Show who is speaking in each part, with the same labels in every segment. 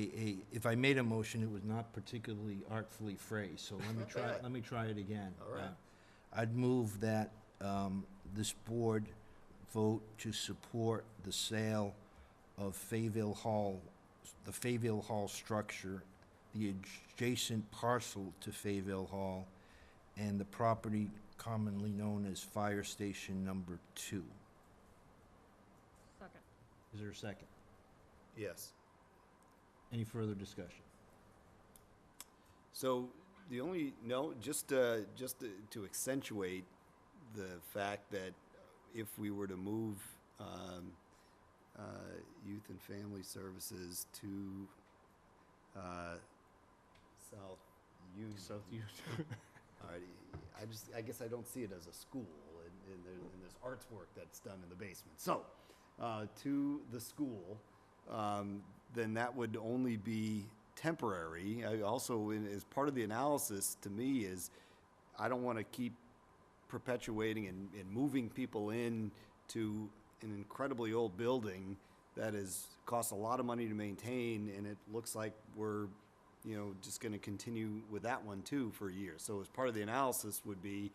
Speaker 1: a- a, if I made a motion, it was not particularly artfully phrased, so let me try, let me try it again.
Speaker 2: All right.
Speaker 1: Uh, I'd move that um, this board vote to support the sale of Fayville Hall, the Fayville Hall structure, the adjacent parcel to Fayville Hall, and the property commonly known as Fire Station Number Two.
Speaker 3: Second.
Speaker 1: Is there a second?
Speaker 2: Yes.
Speaker 1: Any further discussion?
Speaker 2: So the only, no, just, uh, just to- to accentuate the fact that if we were to move, um, uh, youth and family services to, uh, South U.
Speaker 4: South U.
Speaker 2: All right, I just, I guess I don't see it as a school, and, and there, and there's arts work that's done in the basement. So, uh, to the school, um, then that would only be temporary. I also, in- as part of the analysis, to me, is I don't want to keep perpetuating and, and moving people in to an incredibly old building that is, costs a lot of money to maintain, and it looks like we're, you know, just gonna continue with that one too for years. So as part of the analysis would be,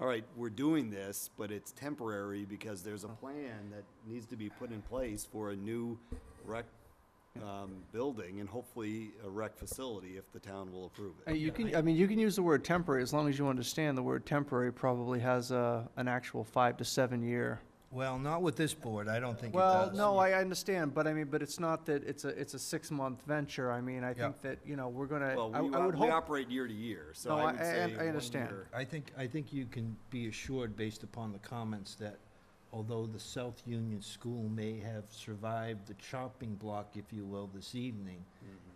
Speaker 2: all right, we're doing this, but it's temporary because there's a plan that needs to be put in place for a new rec, um, building and hopefully a rec facility if the town will approve
Speaker 4: Uh,
Speaker 2: it.
Speaker 4: You can, I mean, you can use the word temporary, as long as you understand the word temporary probably has a, an actual five to seven year.
Speaker 1: Well, not with this board, I don't think it
Speaker 4: Well,
Speaker 1: does.
Speaker 4: no, I I understand, but I mean, but it's not that it's a, it's a six-month venture. I mean, I
Speaker 1: Yeah.
Speaker 4: think that, you know, we're gonna,
Speaker 2: Well,
Speaker 4: I
Speaker 2: we,
Speaker 4: I would
Speaker 2: we
Speaker 4: hope,
Speaker 2: operate year to year, so
Speaker 4: No,
Speaker 2: I
Speaker 4: I-
Speaker 2: would
Speaker 4: I-
Speaker 2: say.
Speaker 4: I
Speaker 2: one
Speaker 4: understand.
Speaker 2: year.
Speaker 1: I think, I think you can be assured, based upon the comments, that although the South Union School may have survived the chopping block, if you will, this evening,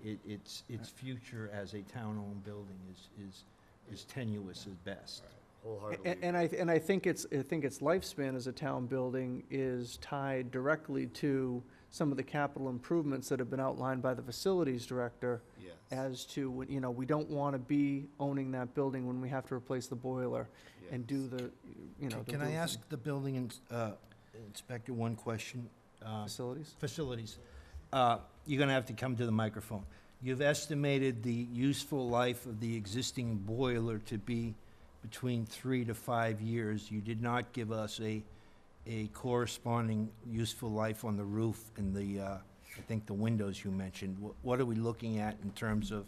Speaker 1: it, its, its future as a town-owned building is, is, is tenuous at best.
Speaker 2: Wholeheartedly.
Speaker 4: and, and I, and I think it's, I think its lifespan as a town building is tied directly to some of the capital improvements that have been outlined by the facilities director
Speaker 2: Yes,
Speaker 4: as to, when- you know, we don't wanna be owning that building when we have to replace the boiler and do the, you know, the
Speaker 1: Can I
Speaker 4: roof and
Speaker 1: ask the building ins- uh, inspector one question? Uh,
Speaker 4: Facilities?
Speaker 1: facilities, uh, you're gonna have to come to the microphone. You've estimated the useful life of the existing boiler to be between three to five years. You did not give us a, a corresponding useful life on the roof and the, uh, I think the windows you mentioned. Wh- What are we looking at in terms of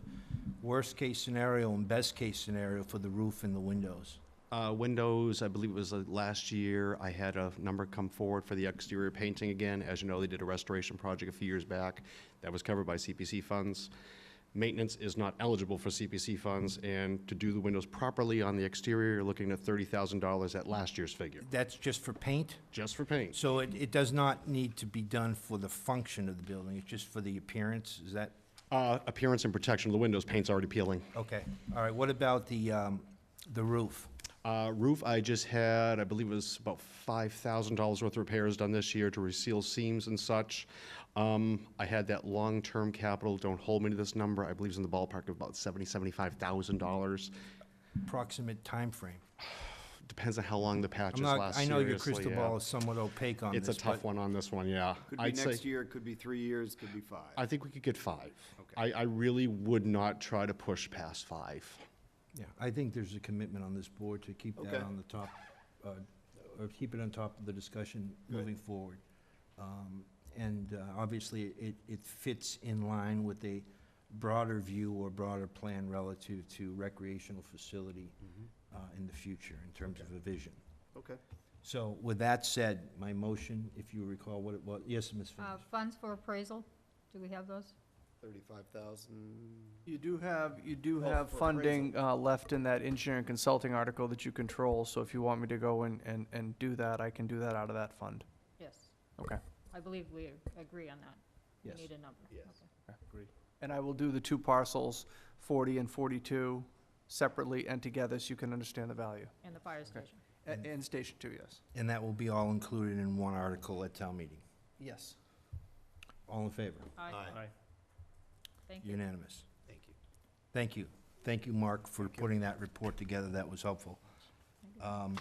Speaker 1: worst-case scenario and best-case scenario for the roof and the windows?
Speaker 5: Uh, windows, I believe it was uh, last year, I had a number come forward for the exterior painting again. As you know, they did a restoration project a few years back that was covered by CPC funds. Maintenance is not eligible for CPC funds, and to do the windows properly on the exterior, you're looking at $30,000 at last year's figure,
Speaker 1: That's just for paint?
Speaker 5: just for paint.
Speaker 1: So it, it does not need to be done for the function of the building, it's just for the appearance, is that?
Speaker 5: Uh, appearance and protection of the windows, paint's already peeling.
Speaker 1: Okay, all right, what about the, um, the roof?
Speaker 5: Uh, roof, I just had, I believe it was about five thousand dollars worth of repairs done this year to reseal seams and such. Um, I had that long-term capital, don't hold me to this number, I believe it's in the ballpark of about seventy, seventy-five thousand dollars.
Speaker 1: Approximate timeframe?
Speaker 5: Depends on how long the
Speaker 1: I'm
Speaker 5: patches
Speaker 1: not,
Speaker 5: last
Speaker 1: I know your
Speaker 5: seriously,
Speaker 1: crystal
Speaker 5: yeah.
Speaker 1: ball is somewhat opaque on this,
Speaker 5: It's a tough
Speaker 1: but-
Speaker 5: one on this one, yeah.
Speaker 2: could be
Speaker 5: I'd say-
Speaker 2: next year, could be three years, could be five.
Speaker 5: I think we could get five. I, I really would not try to push past five.
Speaker 1: Yeah, I think there's a commitment on this board to keep
Speaker 2: Okay.
Speaker 1: that on the top, uh, or keep it on top of the discussion moving forward. Um, And uh, obviously, it, it fits in line with a broader view or broader plan relative to recreational facility uh, in the future in terms of a vision.
Speaker 2: Okay.
Speaker 1: So with that said, my motion, if you recall what it was, yes, Ms.
Speaker 3: Uh,
Speaker 1: Finish?
Speaker 3: funds for appraisal, do we have those?
Speaker 2: Thirty-five thousand.
Speaker 4: You do have, you do
Speaker 2: Oh,
Speaker 4: have
Speaker 2: for appraisal.
Speaker 4: funding uh, left in that engineering consulting article that you control, so if you want me to go and, and, and do that, I can do that out of that fund.
Speaker 3: Yes,
Speaker 4: Okay.
Speaker 3: I believe we agree on that.
Speaker 1: Yes.
Speaker 3: We need a number.
Speaker 2: Yes.
Speaker 3: Okay.
Speaker 4: And I will do the two parcels, 40 and 42, separately and together, so you can understand the value.
Speaker 3: And the fire
Speaker 4: Okay.
Speaker 3: station.
Speaker 4: A- And Station 2, yes.
Speaker 1: And that will be all included in one article at town meeting.
Speaker 4: Yes.
Speaker 1: All in favor?
Speaker 3: Aye, thank you.
Speaker 1: Unanimous.
Speaker 2: Thank you.
Speaker 1: Thank you. Thank you, Mark, for putting that report together. That was helpful. Um,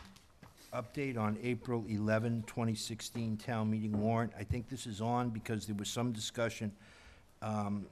Speaker 1: Update on April 11, 2016 town meeting warrant. I think this is on because there was some discussion um,